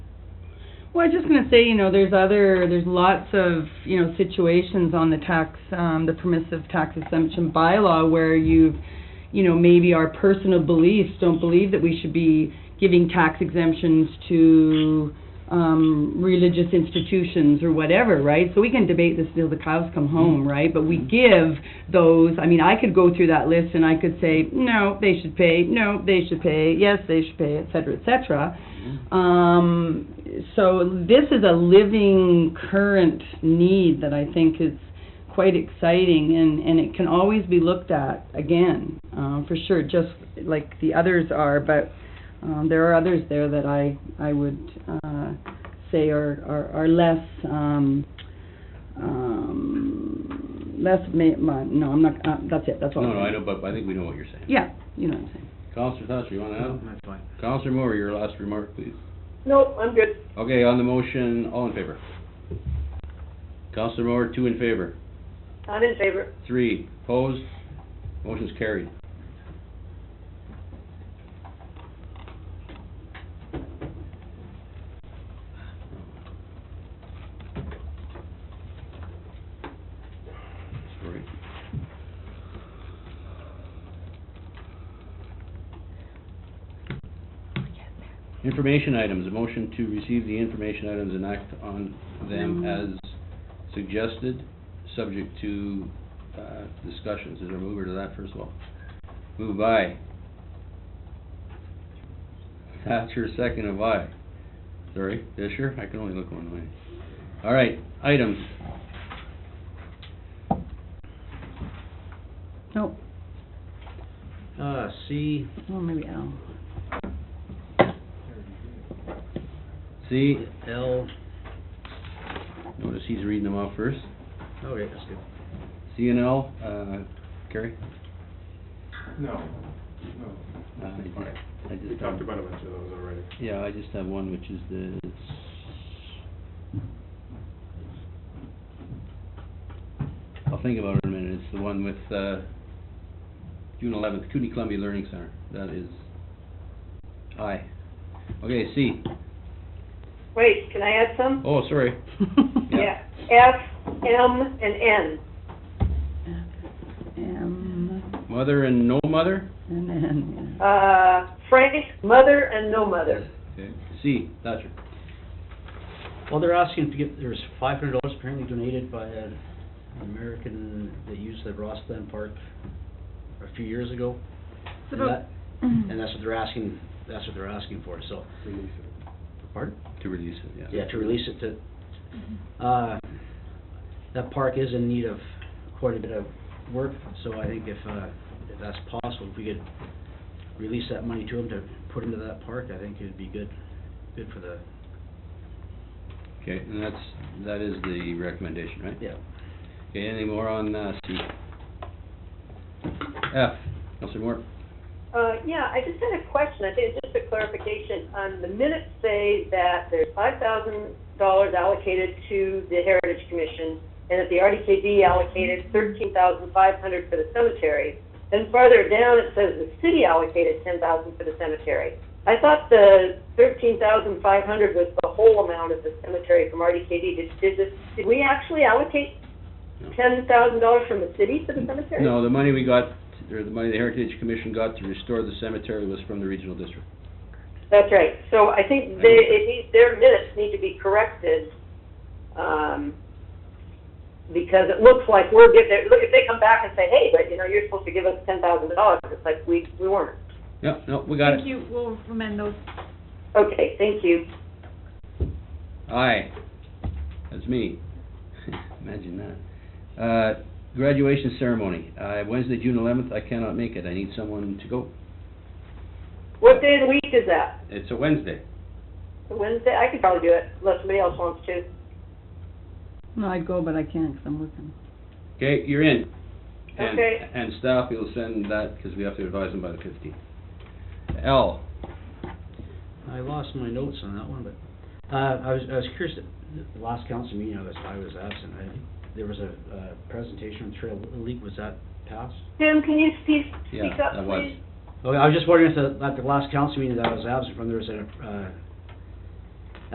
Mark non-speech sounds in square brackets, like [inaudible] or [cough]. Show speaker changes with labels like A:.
A: Well, I was just gonna say, you know, there's other, there's lots of, you know, situations on the tax, um, the permissive tax exemption bylaw where you've, you know, maybe our personal beliefs don't believe that we should be giving tax exemptions to, um, religious institutions or whatever, right? So we can debate this till the cows come home, right? But we give those, I mean, I could go through that list and I could say, no, they should pay, no, they should pay, yes, they should pay, et cetera, et cetera. Um, so this is a living, current need that I think is quite exciting, and, and it can always be looked at again, um, for sure, just like the others are, but, um, there are others there that I, I would, uh, say are, are, are less, um, um, less ma- ma- no, I'm not, uh, that's it, that's all.
B: No, no, I know, but I think we know what you're saying.
A: Yeah, you know what I'm saying.
B: Counselor Thatcher, you wanna
C: No,
B: add?
C: that's fine.
B: Counselor Moore, your last remark, please.
D: No, I'm good.
B: Okay, on the motion, all in favor? Counselor Moore, two in favor,
D: I'm in favor.
B: three opposed, motion's carried. Sorry. Information items, a motion to receive the information items and act on them
A: Mhm.
B: as suggested, subject to, uh, discussions. Is there a mover to that first of all? Move by. Thatcher, second of I. Sorry, Fisher, I can only look one way. All right, items.
A: No,
C: Uh, C,
A: oh, maybe Al.
B: See,
C: L,
B: notice he's reading them off first.
C: okay, that's good.
B: C and L, uh, Gary?
E: No,
B: Uh,
E: no.
B: I
E: It's
B: just-
E: fine.
B: I just-
E: We talked about a bunch of those already.
B: Yeah, I just have one, which is the, I'll think about it in a minute, it's the one with, uh, June eleventh, Cooney Columbia Learning Center, that is I. Okay, C,
D: Wait, can I add some?
B: oh, sorry, yeah.
D: Yeah. F, M, and N.
A: M,
B: mother and no mother?
A: and then, yeah.
D: Uh, Frank, mother and no mother.
B: Okay. C, Thatcher,
C: Well, they're asking to get, there's five hundred dollars apparently donated by an American that used the Rosslyn Park a few years ago.
A: It's
C: And
A: about-
C: that- And that's what they're asking, that's what they're asking for, so,
E: Release it.
C: pardon?
B: to release it, yeah.
C: Yeah, to release it to,
A: Mm-hmm.
C: uh, that park is in need of quite a bit of work, so I think if, uh, if that's possible, if we could release that money to them to put into that park, I think it'd be good, good for the,
B: Okay, and that's, that is the recommendation, right?
C: yeah.
B: Okay, any more on, uh, C? F, Counselor Moore?
D: Uh, yeah, I just had a question. I think it's just a clarification. Um, the minutes say that there's five thousand dollars allocated to the Heritage Commission and that the RDKB allocated thirteen thousand five hundred for the cemetery. Then farther down, it says the city allocated ten thousand for the cemetery. I thought the thirteen thousand five hundred was the whole amount of the cemetery from RDKB. Did, did this, did we actually allocate
B: No.
D: ten thousand dollars from the city to the cemetery?
B: No, the money we got, or the money the Heritage Commission got to restore the cemetery was from the regional district.
D: That's right. So I think they, it needs, their minutes need to be corrected, um, because it looks like we're giving, look, if they come back and say, hey, but, you know, you're supposed to give us ten thousand dollars, it's like, we, we weren't.
B: Yep, no, we got
F: Thank
B: it.
F: you, we'll amend those.
D: Okay, thank you.
B: Aye. That's me. [laughs] Imagine that. Uh, graduation ceremony, uh, Wednesday, June eleventh, I cannot make it, I need someone to go.
D: What day of the week is that?
B: It's a Wednesday.
D: Wednesday? I could probably do it, unless somebody else wants to.
A: No, I'd go, but I can't, 'cause I'm working.
B: Okay, you're in. And-
D: Okay.
B: And staff, you'll send that, because we have to advise them by the fifteenth. L,
C: I lost my notes on that one, but, uh, I was, I was curious, the last council meeting, I was, I was absent, I, there was a, uh, presentation on Trail League, was that passed? Oh,
D: Tim, can you speak,
B: yeah,
D: speak up,
B: that was.
D: please?
C: Okay, I was just wondering if the, at the last council meeting that I was absent from, there was a, uh,